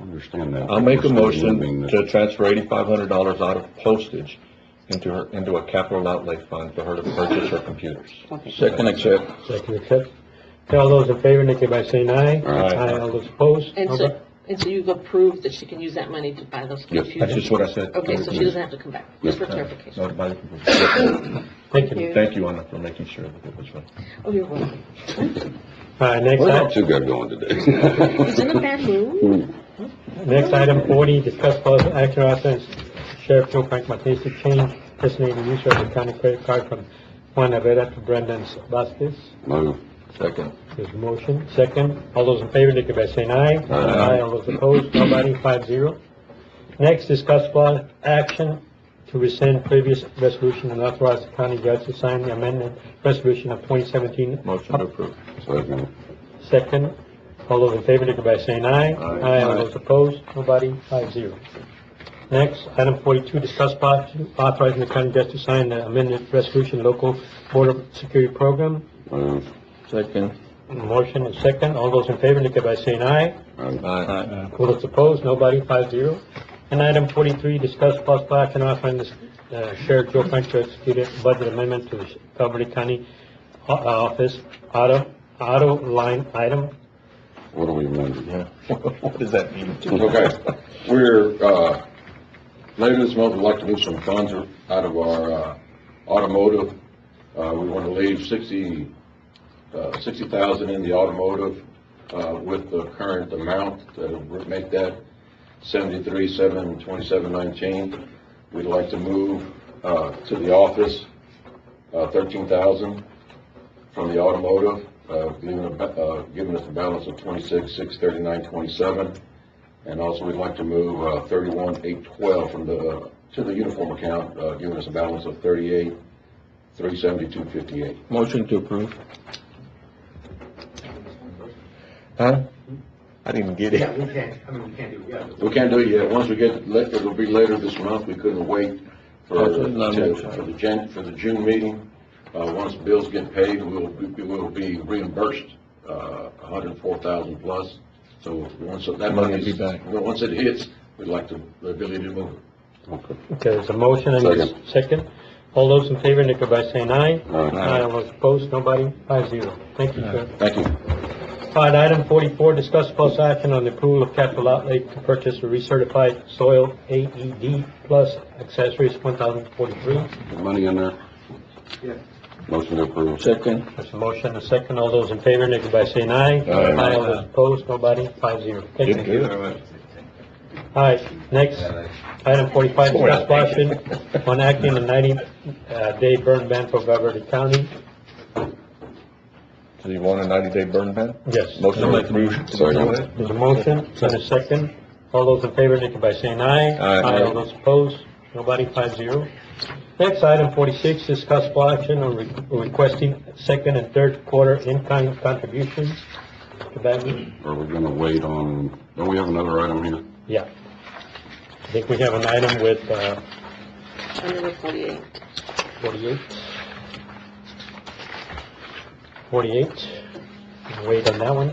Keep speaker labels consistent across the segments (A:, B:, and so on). A: understand that.
B: I'll make a
A: We're still
B: motion
A: moving this-
B: to transfer eighty-five hundred dollars out of postage into her, into a capital outlay fund for her to purchase her computers.
A: Okay.
B: Second, accept.
C: Second, accept. Okay, all those in favor, indicate by saying aye.
A: Aye.
C: all those opposed?
D: And so, and so you've approved that she can use that money to buy those
A: Yes.
B: That's
D: computers?
B: just what I said.
D: Okay, so she doesn't have to come back, just for
A: Yeah.
D: clarification.
B: Nobody-
C: Thank you.
B: Thank you, Anna, for making sure that it was right.
D: Oh, you're welcome.
C: All right, next
A: We're not
C: item,
A: too good going today.
D: He's in a bad mood.
C: next item forty, discuss possible action authorizing Sheriff Joe Frank Martinez to change his name and use of the county credit card from Juan Avera to Brendan Vasquez.
A: Move.
B: Second.
C: There's a motion, second. All those in favor, indicate by saying aye.
B: Aye.
C: All those opposed, nobody, five zero. Next, discuss possible action to rescind previous resolution and authorize the county judge to sign the amendment resolution of twenty seventeen.
B: Motion to approve.
A: Second.
C: Second. All those in favor, indicate by saying aye.
B: Aye.
C: All those opposed, nobody, five zero. Next, item forty-two, discuss possible authorizing the county judge to sign the amendment resolution local border security program.
A: Move.
B: Second.
C: Motion is second. All those in favor, indicate by saying aye.
A: Aye.
B: Aye.
C: All those opposed, nobody, five zero. And item forty-three, discuss possible action authorizing the uh, Sheriff Joe Frank to execute a budget amendment to the Calvert County uh, Office auto, auto line item.
A: What are we amending?
B: Yeah. What does that mean?
E: Okay, we're, uh, later this month, we'd like to move some funds out of our, uh, automotive. Uh, we want to leave sixty, uh, sixty thousand in the automotive, uh, with the current amount, that would make that seventy-three, seven, twenty-seven, nineteen. We'd like to move, uh, to the office, uh, thirteen thousand from the automotive, uh, giving, a ba- uh, giving us a balance of twenty-six, six, thirty-nine, twenty-seven. And also, we'd like to move uh, 31, 812 from the, uh, to the uniform account, uh, giving us a balance of 38, 372, 58.
B: Motion to approve. Huh? I didn't get it.
F: we can't, I mean, we can't do, yeah.
E: We can't do it yet. Once we get, la- it'll be later this month. We couldn't wait for,
B: Oh, so not
E: to-
B: much.
E: for the Jan, for the June meeting. Uh, Once bills get paid, we'll, we will be reimbursed uh, 104,000 plus. So once that
B: Money will
E: money,
B: be back.
E: once it hits, we'd like to, the ability to move it.
A: Okay.
C: Okay, there's a motion and a second. All those in favor, indicate by saying aye.
A: Aye.
C: All those opposed, nobody, five zero. Thank you, Sheriff.
E: Thank you.
C: All right, item forty-four, discuss possible action on the approval of capital outlay to purchase a recertified soil AED plus accessories, one thousand forty-three.
A: Money in there?
F: Yeah.
A: Motion to approve.
B: Second.
C: There's a motion, a second, all those in favor, indicate by saying aye.
A: Aye.
C: All those opposed, nobody, five zero. Thank you. All right, next, item forty-five, discuss possible action on acting on ninety-day burn ban for Beverly County.
B: Do you want a ninety-day burn ban?
C: Yes.
B: Motion to approve.
A: Second.
C: There's a motion and a second. All those in favor, indicate by saying aye.
B: Aye.
C: All those opposed, nobody, five zero. Next, item forty-six, discuss possible action on re- requesting second and third quarter in-kind contributions to Bagley.
A: Are we gonna wait on, don't we have another item here?
C: Yeah. I think we have an item with, uh,
D: Item number forty-eight.
C: forty-eight. Forty-eight. Wait on that one,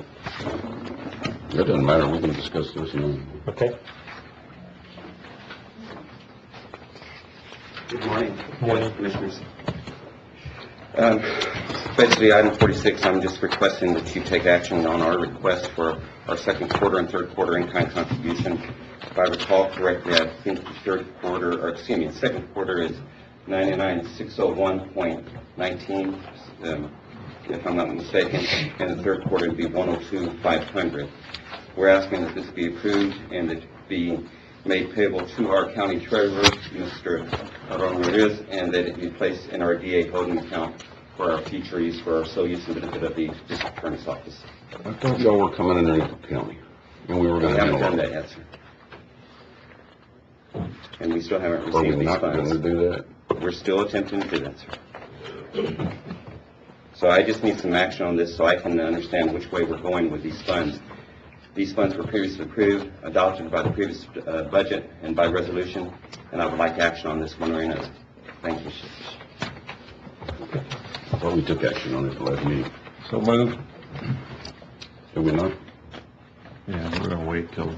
A: It doesn't matter, we can discuss this now.
C: okay?
F: Good morning.
C: Morning.
F: Commissioners. Um, Basically, item 46, I'm just requesting that you take action on our request for our second quarter and third quarter in-kind contribution. If I recall correctly, I think the third quarter, or excuse me, the second quarter is 99601.19, um, if I'm not mistaken, and the third quarter would be 102,500. We're asking that this be approved and that it be made payable to our county treasurer, Mr. Aaron Ruiz, and that it be placed in our DA holding account for our future use for our sole use and benefit of the district attorney's office.
A: I thought y'all were coming in there the county, and we were
F: We
A: gonna
F: haven't done
A: handle
F: that
A: it.
F: yet, sir. And we still haven't
A: Are we
F: received these
A: not gonna
F: funds.
A: do that?
F: We're still attempting to do that, sir. So I just need some action on this so I can understand which way we're going with these funds. These funds were previously approved, adopted by the previous uh, budget and by resolution, and I would like action on this one way or another. Thank you.
A: I thought we took action on it at the last meeting.
B: So moved.
A: Did we not?
B: Yeah, we're gonna wait till